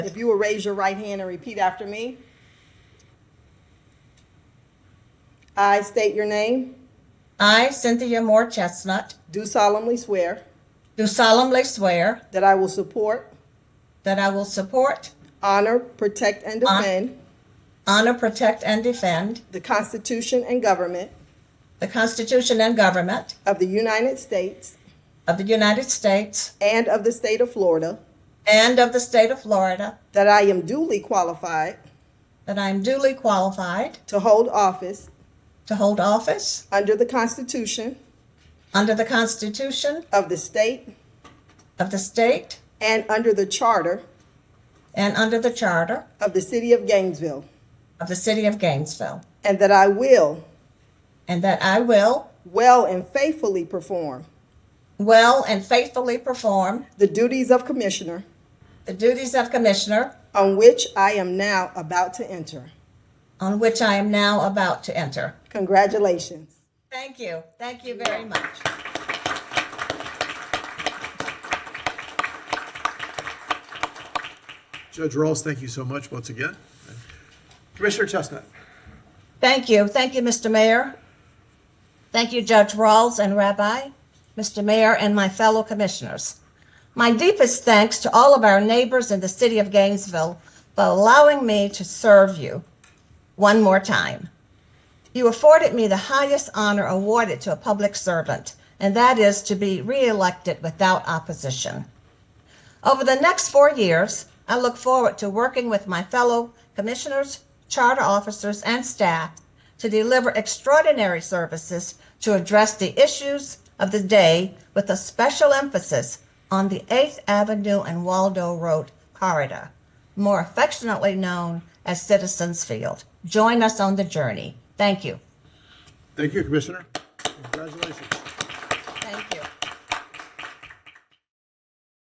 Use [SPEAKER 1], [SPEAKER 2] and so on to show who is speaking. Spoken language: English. [SPEAKER 1] If you will raise your right hand and repeat after me. I state your name,
[SPEAKER 2] I, Cynthia Moore Chestnut,
[SPEAKER 1] do solemnly swear
[SPEAKER 2] do solemnly swear
[SPEAKER 1] that I will support,
[SPEAKER 2] that I will support,
[SPEAKER 1] honor, protect, and
[SPEAKER 2] Hon-
[SPEAKER 1] defend
[SPEAKER 2] honor, protect, and defend
[SPEAKER 1] the Constitution and government
[SPEAKER 2] the Constitution and government
[SPEAKER 1] of the United States
[SPEAKER 2] of the United States
[SPEAKER 1] and of the state of Florida,
[SPEAKER 2] and of the state of Florida,
[SPEAKER 1] that I am duly qualified
[SPEAKER 2] that I am duly qualified
[SPEAKER 1] to hold office
[SPEAKER 2] to hold office
[SPEAKER 1] under the Constitution
[SPEAKER 2] under the Constitution
[SPEAKER 1] of the state
[SPEAKER 2] of the state
[SPEAKER 1] and under the charter
[SPEAKER 2] and under the charter
[SPEAKER 1] of the city of Gainesville,
[SPEAKER 2] of the city of Gainesville,
[SPEAKER 1] and that I will
[SPEAKER 2] and that I will
[SPEAKER 1] well and faithfully perform
[SPEAKER 2] well and faithfully perform
[SPEAKER 1] the duties of commissioner
[SPEAKER 2] the duties of commissioner
[SPEAKER 1] on which I am now about to enter.
[SPEAKER 2] on which I am now about to enter.
[SPEAKER 1] Congratulations.
[SPEAKER 2] Thank you. Thank you very much.
[SPEAKER 3] Judge Rawls, thank you so much once again. Commissioner Chestnut.
[SPEAKER 2] Thank you. Thank you, Mr. Mayor. Thank you, Judge Rawls and Rabbi, Mr. Mayor, and my fellow commissioners. My deepest thanks to all of our neighbors in the city of Gainesville for allowing me to serve you one more time. You afforded me the highest honor awarded to a public servant, and that is to be reelected without opposition. Over the next four years, I look forward to working with my fellow commissioners, charter officers, and staff to deliver extraordinary services to address the issues of the day with a special emphasis on the 8th Avenue and Waldo Road corridor, more affectionately known as Citizens Field. Join us on the journey. Thank you.
[SPEAKER 3] Thank you, Commissioner. Congratulations.